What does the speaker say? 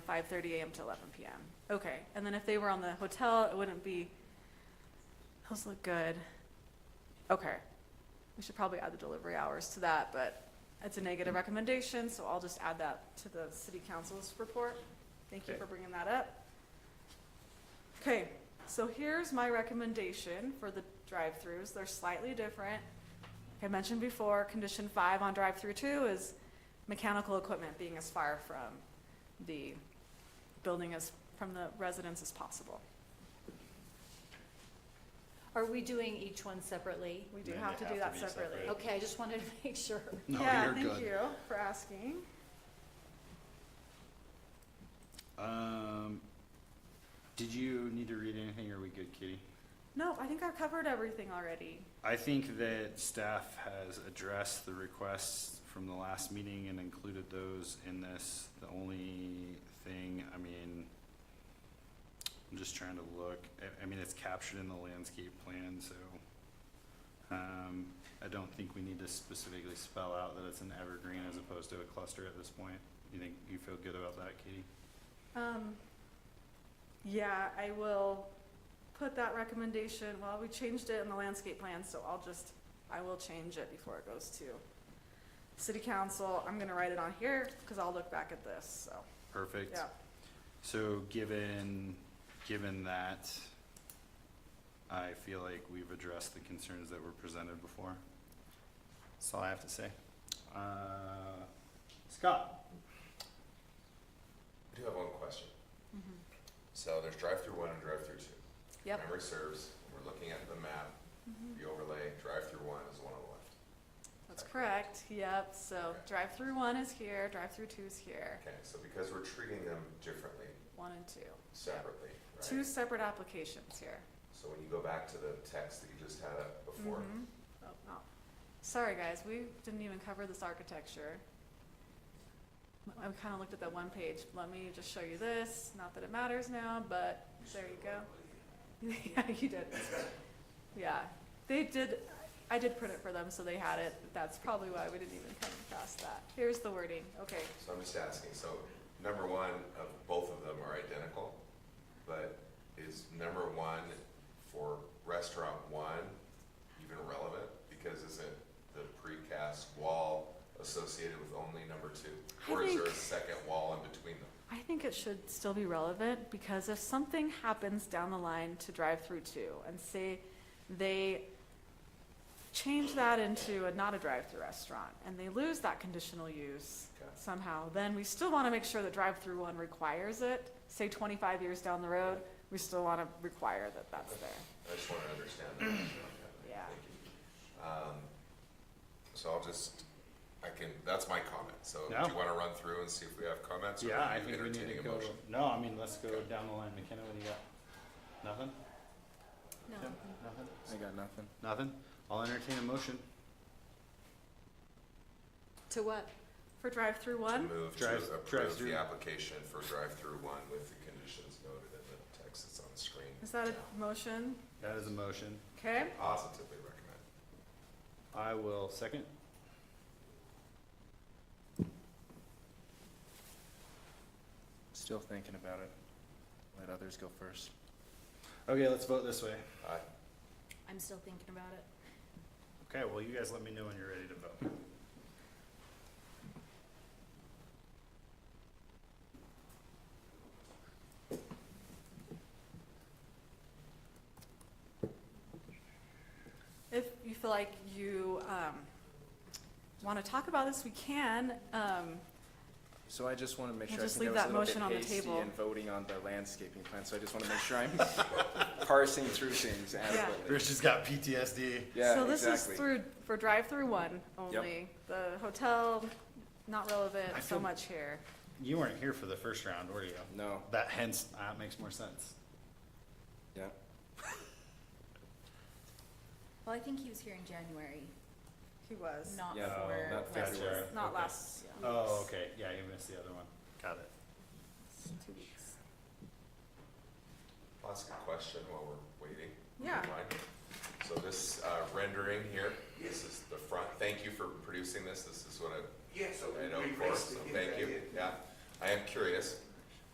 five thirty AM to eleven PM. Okay, and then if they were on the hotel, it wouldn't be, those look good. Okay, we should probably add the delivery hours to that, but it's a negative recommendation, so I'll just add that to the city council's report. Thank you Okay. for bringing that up. Okay, so here's my recommendation for the drive-throughs. They're slightly different. Like I mentioned before, condition five on drive-through two is mechanical equipment being as far from the building as, from the residence as possible. Are we doing each one separately? We do Then have to they do have that to be separately. separate. Okay, I just wanted to make sure. No, Yeah, you're thank good. you for asking. Um, did you need to read anything? Are we good, Kitty? No, I think I've covered everything already. I think that staff has addressed the requests from the last meeting and included those in this. The only thing, I mean, I'm just trying to look, I, I mean, it's captured in the landscape plan, so, um, I don't think we need to specifically spell out that it's an evergreen as opposed to a cluster at this point. You think, you feel good about that, Kitty? Um, yeah, I will put that recommendation, well, we changed it in the landscape plan, so I'll just, I will change it before it goes to city council. I'm gonna write it on here, cause I'll look back at this, so, Perfect. yeah. So given, given that, I feel like we've addressed the concerns that were presented before. That's all I have to say. Uh, Scott? I do have one question. So there's drive-through one and drive-through two. Yep. Memory serves, we're looking at the map, the overlay, drive-through one is the one on the left. Mm-hmm. That's correct, yep, so Okay. drive-through one is here, drive-through two is here, Okay, so because we're treating them differently, one and two. separately, Two right? separate applications here. So when you go back to the text that you just had up before, Mhm. Oh, no. Sorry, guys, we didn't even cover this architecture. I kind of looked at that one page. Let me just show you this. Not that it matters now, but there you go. Yeah, you did. Yeah, they did, I did print it for them, so they had it. That's probably why we didn't even come across that. Here's the wording. Okay, so I'm just asking, so number one of both of them are identical, but is number one for restaurant one even relevant? Because isn't the precast wall associated with only number two? I Or is there a think- second wall in between them? I think it should still be relevant because if something happens down the line to drive-through two and say they change that into a not a drive-through restaurant and they lose that conditional use Okay. somehow, then we still want to make sure that drive-through one requires it. Say twenty-five years down the road, we still want to require that that's there. I just want to understand that. Yeah. Thank you. Um, So I'll just, I can, that's my comment. So do Yeah. you want to run through and see if we have comments? or Yeah, are I you think we need entertaining to a go, motion? no, I mean, let's go down the line. McKenna, what do you got? Nothing? No. Tim? Nothing? I got nothing. Nothing? I'll entertain a motion. To what? For drive-through To one, move to Drive- approve drive-through. the application for drive-through one with the conditions noted in the text that's on the screen. is that now. a motion? That is a motion. Okay, Positively recommend. I will second. Still thinking about it. Let others go first. Okay, let's vote this way. Aye. I'm still thinking about it. Okay, well, you guys let me know when you're ready to vote. If you feel like you um, want to talk about this, we can. Um, So I just want to make We'll sure, I just think leave I was a that little motion on the bit hasty table. in voting on the landscaping plan, so I just want to make sure I'm parsing through things adequately. Rich has got PTSD. Yeah, so this exactly. is through for drive-through one only. The hotel, not relevant I so feel- much here. You weren't here for the first round, were you? No, That hence, that makes more sense. yeah. Well, I think he was here in January, He was not Yeah, Uh, for last not February. year's- not Okay. last. yeah, Oh, okay, yeah, you missed the other one. Got it. Two weeks. I'll Ask a question while we're waiting. if you Yeah. mind. So this uh, rendering here, this is the front, thank you for producing this, this is what I Yeah, so I know, we of course, so rested in thank that you, area. yeah. I am curious,